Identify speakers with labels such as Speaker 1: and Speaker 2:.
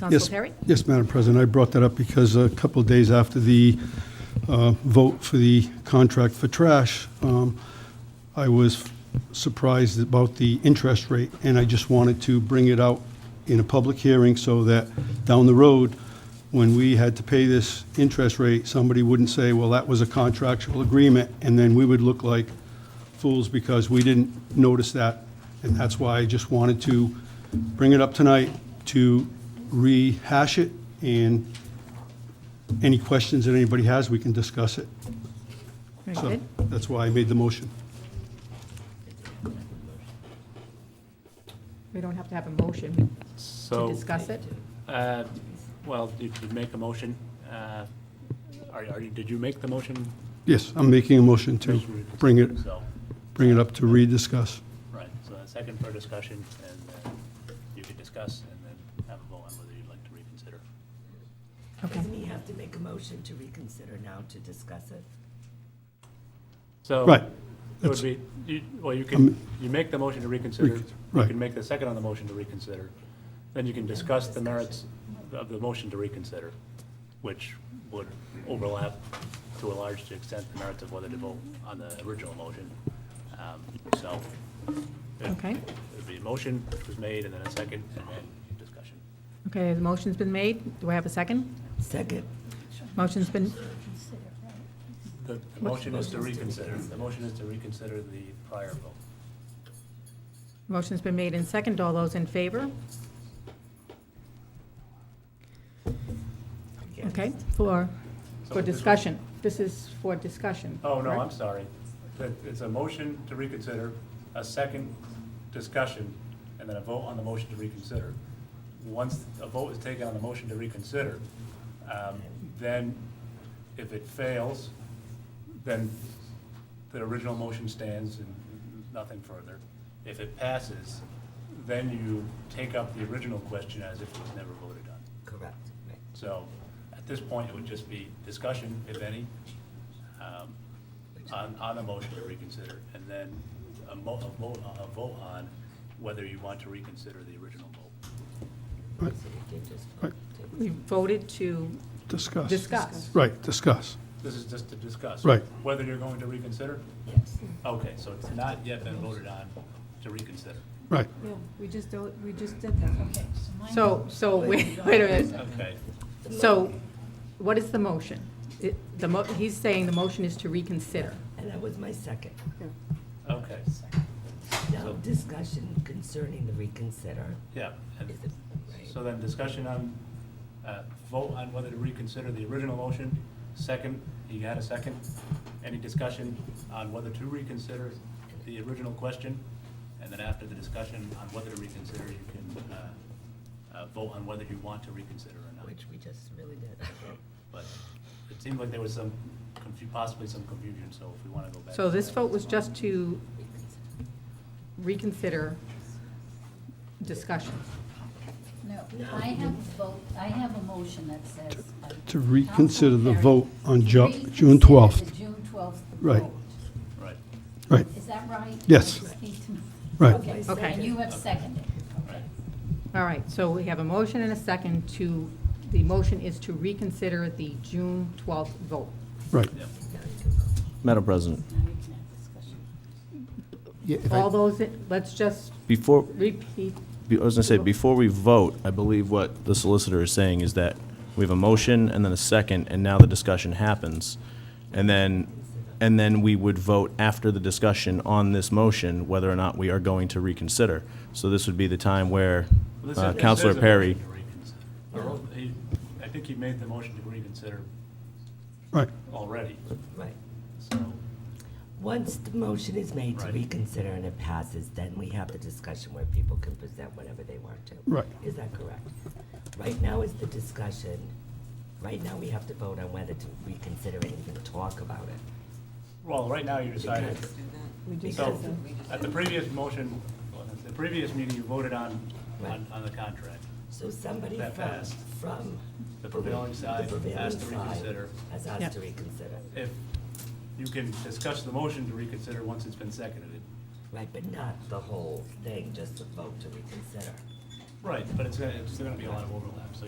Speaker 1: Council
Speaker 2: Yes.
Speaker 1: Perry?
Speaker 2: Yes, Madam President, I brought that up because a couple of days after the uh, vote for the contract for trash, um, I was surprised about the interest rate, and I just wanted to bring it out in a public hearing so that down the road, when we had to pay this interest rate, somebody wouldn't say, well, that was a contractual agreement, and then we would look like fools because we didn't notice that. And that's why I just wanted to bring it up tonight to rehash it, and any questions that anybody has, we can discuss it.
Speaker 1: Very
Speaker 2: So
Speaker 1: good.
Speaker 2: that's why I made the motion.
Speaker 1: We don't have to have a motion to
Speaker 3: So,
Speaker 1: discuss it.
Speaker 3: uh, well, did you make a motion? uh, Are are you, did you make the motion?
Speaker 2: Yes, I'm making a motion to bring it,
Speaker 3: So,
Speaker 2: bring it up to rediscuss.
Speaker 3: right, so a second for discussion, and uh, you can discuss and then have a vote on whether you'd like to reconsider.
Speaker 1: Okay.
Speaker 4: Doesn't he have to make a motion to reconsider now to discuss it?
Speaker 3: So.
Speaker 2: Right.
Speaker 3: It would be, you- well, you can, you make the motion to reconsider, you
Speaker 2: right.
Speaker 3: can make the second on the motion to reconsider, then you can discuss the merits of the motion to reconsider, which would overlap to a large extent the merits of whether to vote on the original motion. Um, So. it-
Speaker 1: Okay.
Speaker 3: It'd be a motion which was made, and then a second, and then discussion.
Speaker 1: Okay, the motion's been made. Do I have a second?
Speaker 4: Second.
Speaker 1: Motion's been,
Speaker 3: The the motion is to reconsider, the motion is to reconsider the prior vote.
Speaker 1: motion's been made and second. All those in favor?
Speaker 4: Again.
Speaker 1: Okay, for,
Speaker 3: So
Speaker 1: for
Speaker 3: this-
Speaker 1: discussion. This is for discussion.
Speaker 3: Oh, no,
Speaker 1: correct?
Speaker 3: I'm sorry. That- It's a motion to reconsider, a second discussion, and then a vote on the motion to reconsider. Once a vote is taken on the motion to reconsider, um, then if it fails, then the original motion stands and nothing further. If it passes, then you take up the original question as if it was never voted on.
Speaker 4: Correct. Right.
Speaker 3: So at this point, it would just be discussion, if any, um, on, on a motion to reconsider, and then a mo, a vote, a vote on whether you want to reconsider the original vote.
Speaker 4: So we did just
Speaker 2: Right.
Speaker 1: We voted to
Speaker 2: Discuss.
Speaker 1: discuss.
Speaker 2: Right, discuss.
Speaker 3: This is just to discuss.
Speaker 2: Right.
Speaker 3: Whether you're going to reconsider?
Speaker 4: Yes.
Speaker 3: Okay, so it's not yet been voted on to reconsider.
Speaker 2: Right.
Speaker 5: Yeah, we just, do- we just did that, okay. my-
Speaker 1: So, so, wait wait a minute.
Speaker 3: Okay,
Speaker 1: So what is the motion? It- The, mo- he's saying the motion is to reconsider.
Speaker 4: And that was my second.
Speaker 3: okay,
Speaker 4: Now, discussion concerning the reconsider.
Speaker 3: yeah. and-
Speaker 4: Is it, right?
Speaker 3: So then discussion on, uh, vote on whether to reconsider the original motion. Second, you had a second. Any discussion on whether to reconsider the original question? And then after the discussion on whether to reconsider, you can uh, uh, vote on whether you want to reconsider or not.
Speaker 4: Which we just really did.
Speaker 3: But it seemed like there was some, confu- possibly some confusion, so if we want to go back.
Speaker 1: So
Speaker 3: to
Speaker 1: this
Speaker 3: that.
Speaker 1: vote was just to reconsider discussion.
Speaker 5: No, I have a vote, I have a motion that says. uh,
Speaker 2: To reconsider the
Speaker 5: Council
Speaker 2: vote on
Speaker 5: Perry,
Speaker 2: Ju-
Speaker 5: to
Speaker 2: June
Speaker 5: reconsider
Speaker 2: 12th.
Speaker 5: the June 12th
Speaker 2: Right.
Speaker 5: vote.
Speaker 3: Right,
Speaker 6: Uh,
Speaker 2: Right,
Speaker 5: Is that right?
Speaker 2: Yes.
Speaker 5: I just need to know.
Speaker 2: Right.
Speaker 4: Okay, so
Speaker 1: Okay.
Speaker 5: And you have seconded.
Speaker 3: right.
Speaker 1: All right, so we have a motion and a second to, the motion is to reconsider the June 12th vote.
Speaker 2: right.
Speaker 4: now you can vote.
Speaker 6: Madam President,
Speaker 5: Now we can have discussion.
Speaker 1: All those, let's just
Speaker 6: before,
Speaker 1: repeat,
Speaker 6: I was gonna say, before we vote, I believe what the solicitor is saying is that we have a motion and then a second, and now the discussion happens. And then, and then we would vote after the discussion on this motion whether or not we are going to reconsider. So this would be the time where
Speaker 3: Well, this
Speaker 6: uh,
Speaker 3: is-
Speaker 6: Counselor
Speaker 3: this is a
Speaker 6: Perry,
Speaker 3: motion to reconsider. Or, he- I think he made the motion to reconsider
Speaker 2: Right,
Speaker 3: already,
Speaker 4: Right.
Speaker 3: so.
Speaker 4: Once the motion is made to
Speaker 3: Right.
Speaker 4: reconsider and it passes, then we have the discussion where people can present whatever they want to.
Speaker 2: Right.
Speaker 4: Is that correct? Right now is the discussion, right now we have to vote on whether to reconsider and even talk about it.
Speaker 3: Well, right now you decided,
Speaker 4: Because-
Speaker 3: so,
Speaker 4: Because,
Speaker 3: at the previous motion, well, at the previous meeting, you voted on, on,
Speaker 4: Right.
Speaker 3: on the contract.
Speaker 4: so somebody
Speaker 3: That
Speaker 4: from,
Speaker 3: passed.
Speaker 4: from.
Speaker 3: The prevailing side
Speaker 4: the prevailing
Speaker 3: has to
Speaker 4: side
Speaker 3: reconsider.
Speaker 4: Has
Speaker 1: Yeah.
Speaker 4: asked to reconsider,
Speaker 3: If, you can discuss the motion to reconsider once it's been seconded.
Speaker 4: right, but not the whole thing, just the vote to reconsider.
Speaker 3: Right, but it's, gonna- it's still gonna be a lot of overlap, so